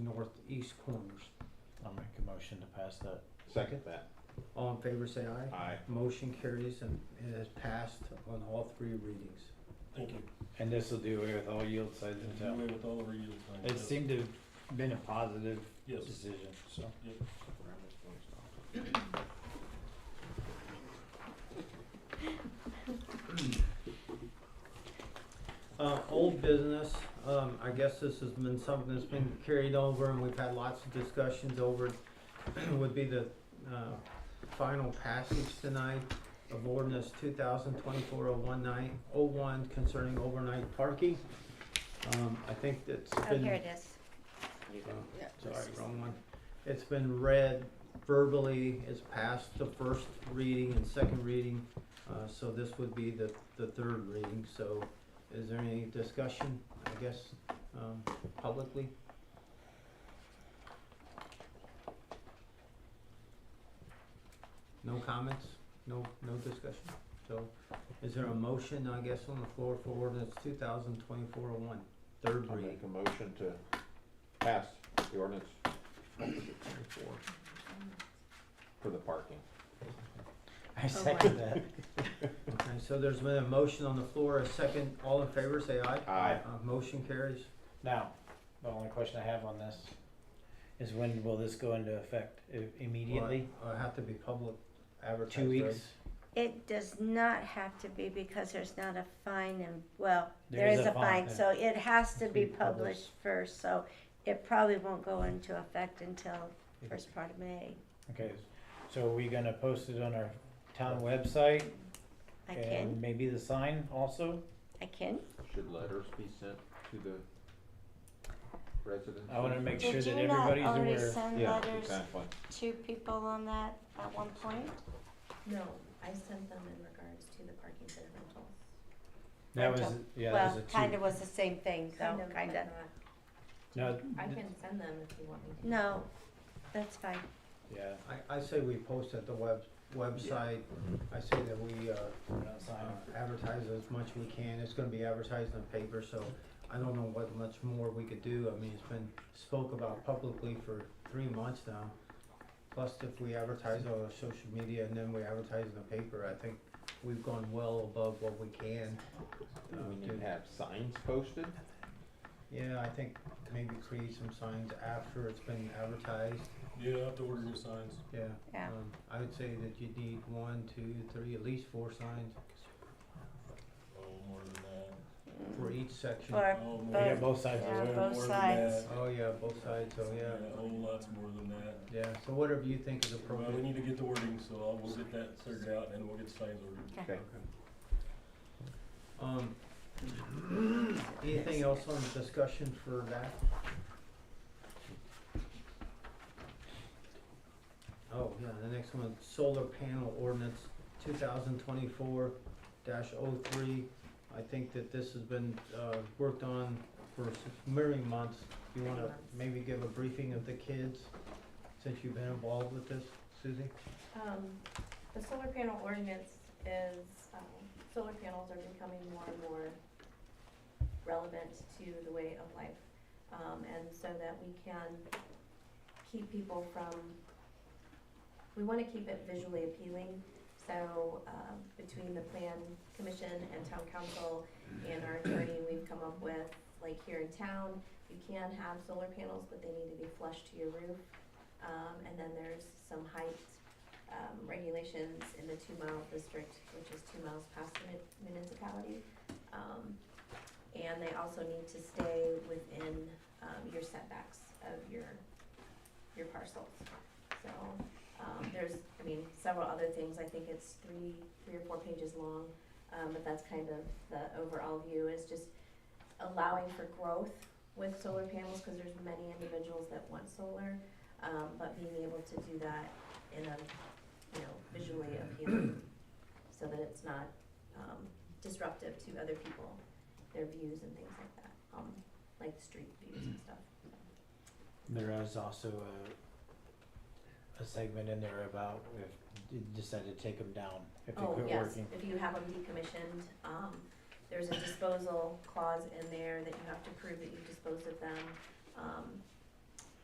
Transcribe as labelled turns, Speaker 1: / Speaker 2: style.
Speaker 1: east corners.
Speaker 2: I'll make a motion to pass that.
Speaker 3: Second that.
Speaker 1: All in favor, say aye.
Speaker 3: Aye.
Speaker 1: Motion carries and it is passed on all three readings.
Speaker 4: Thank you.
Speaker 2: And this will do away with all yield signs in
Speaker 4: And do
Speaker 2: town.
Speaker 4: away with all of our yield signs.
Speaker 2: It seemed to have been a positive
Speaker 4: Yes.
Speaker 2: decision, so.
Speaker 4: Yep.
Speaker 1: Uh, old business, um, I guess this has been something that's been carried over and we've had lots of discussions over, it, would be the, uh, final passage tonight of ordinance two thousand twenty-four oh one nine, oh one concerning overnight parking. Um, I think that's
Speaker 5: Oh,
Speaker 1: been.
Speaker 5: here it is.
Speaker 1: Oh, Sorry, wrong one. It's been read verbally, it's passed the first reading and second reading, uh, so this would be the, the third reading, so is there any discussion, I guess, um, publicly? No comments, no, no discussion, so is there a motion, I guess, on the floor for ordinance two thousand twenty-four oh one, third
Speaker 3: I'll
Speaker 1: reading?
Speaker 3: make a motion to pass the ordinance twenty-four for the parking.
Speaker 2: I second that.
Speaker 1: Okay, so there's been a motion on the floor, a second, all in favor, say aye.
Speaker 3: Aye.
Speaker 1: Uh, motion carries.
Speaker 2: Now, the only question I have on this is when will this go into effect? I- Immediately?
Speaker 1: Uh, have to be public advertised.
Speaker 2: Two weeks?
Speaker 5: It does not have to be because there's not a fine and, well, there is a fine,
Speaker 2: yeah.
Speaker 5: so it has to be
Speaker 2: Be published.
Speaker 5: published first, so it probably won't go into effect until first part of May.
Speaker 2: Okay, so are we gonna post it on our town website?
Speaker 5: I
Speaker 2: And
Speaker 5: can,
Speaker 2: maybe the sign also?
Speaker 5: I can.
Speaker 3: Should letters be sent to the residents?
Speaker 2: I wanna make sure
Speaker 5: Did
Speaker 2: that
Speaker 5: you not
Speaker 2: everybody's
Speaker 5: already
Speaker 2: aware.
Speaker 5: send
Speaker 3: Yeah,
Speaker 5: letters
Speaker 3: exactly.
Speaker 5: to people on that at one point?
Speaker 6: No, I sent them in regards to the parking for the rentals.
Speaker 2: That was, yeah, that was a
Speaker 5: Well, kinda
Speaker 2: two.
Speaker 5: was the same thing, though,
Speaker 6: but
Speaker 5: Oh, kinda.
Speaker 2: No,
Speaker 6: not- I
Speaker 2: th-
Speaker 6: can send them if you want me to.
Speaker 5: No, that's fine.
Speaker 2: yeah,
Speaker 1: I, I say we post at the web, website, I say that we, uh,
Speaker 2: we're not
Speaker 1: uh,
Speaker 2: signing.
Speaker 1: advertise as much we can, it's gonna be advertised in the paper, so I don't know what much more we could do, I mean, it's been spoke about publicly for three months now. Plus, if we advertise on our social media and then we advertise in the paper, I think we've gone well above what we can.
Speaker 3: Do
Speaker 1: uh,
Speaker 3: we need
Speaker 1: do.
Speaker 3: to have signs posted?
Speaker 1: Yeah, I think maybe create some signs after it's been advertised,
Speaker 4: Yeah, I have to order new signs.
Speaker 1: yeah.
Speaker 5: Yeah.
Speaker 1: Um, I would say that you need one, two, three, at least four signs
Speaker 4: Oh, more than that.
Speaker 1: for each section.
Speaker 5: Or
Speaker 4: Oh, more
Speaker 2: We
Speaker 4: than-
Speaker 2: got
Speaker 5: both,
Speaker 2: both sides of
Speaker 5: Yeah,
Speaker 4: way
Speaker 2: it.
Speaker 5: both
Speaker 4: more than
Speaker 5: sides.
Speaker 4: that.
Speaker 1: Oh, yeah, both sides, so yeah.
Speaker 4: Yeah, oh, lots more than that.
Speaker 1: Yeah, so whatever you think is
Speaker 4: Well, we
Speaker 1: appropriate.
Speaker 4: need to get the wording, so I'll, we'll get that figured out and we'll get signs ordered.
Speaker 5: Okay.
Speaker 3: Okay.
Speaker 1: Um, anything else on the discussion for that? Oh, yeah, the next one, solar panel ordinance, two thousand twenty-four dash oh three. I think that this has been, uh, worked on for s- many months. You wanna maybe give a briefing of the kids, since you've been involved with this, Susie?
Speaker 6: Um, the solar panel ordinance is, um, solar panels are becoming more and more relevant to the way of life. Um, and so that we can keep people from, we wanna keep it visually appealing. So, um, between the plan commission and town council and our attorney, we've come up with, like here in town, you can have solar panels, but they need to be flush to your roof. Um, and then there's some height um, regulations in the two mile district, which is two miles past the mun- municipality. Um, and they also need to stay within, um, your setbacks of your, your parcels. So, um, there's, I mean, several other things, I think it's three, three or four pages long, um, but that's kind of the overall view is just allowing for growth with solar panels, cause there's many individuals that want solar, um, but being able to do that in a, you know, visually appealing, so that it's not um, disruptive to other people, their views and things like that, um, like street views and stuff.
Speaker 2: There is also a, a segment in there about if you decide to take them down, if they
Speaker 6: Oh,
Speaker 2: quit
Speaker 6: yes,
Speaker 2: working.
Speaker 6: if you have them decommissioned, um, there's a disposal clause in there that you have to prove that you disposed of them. Um,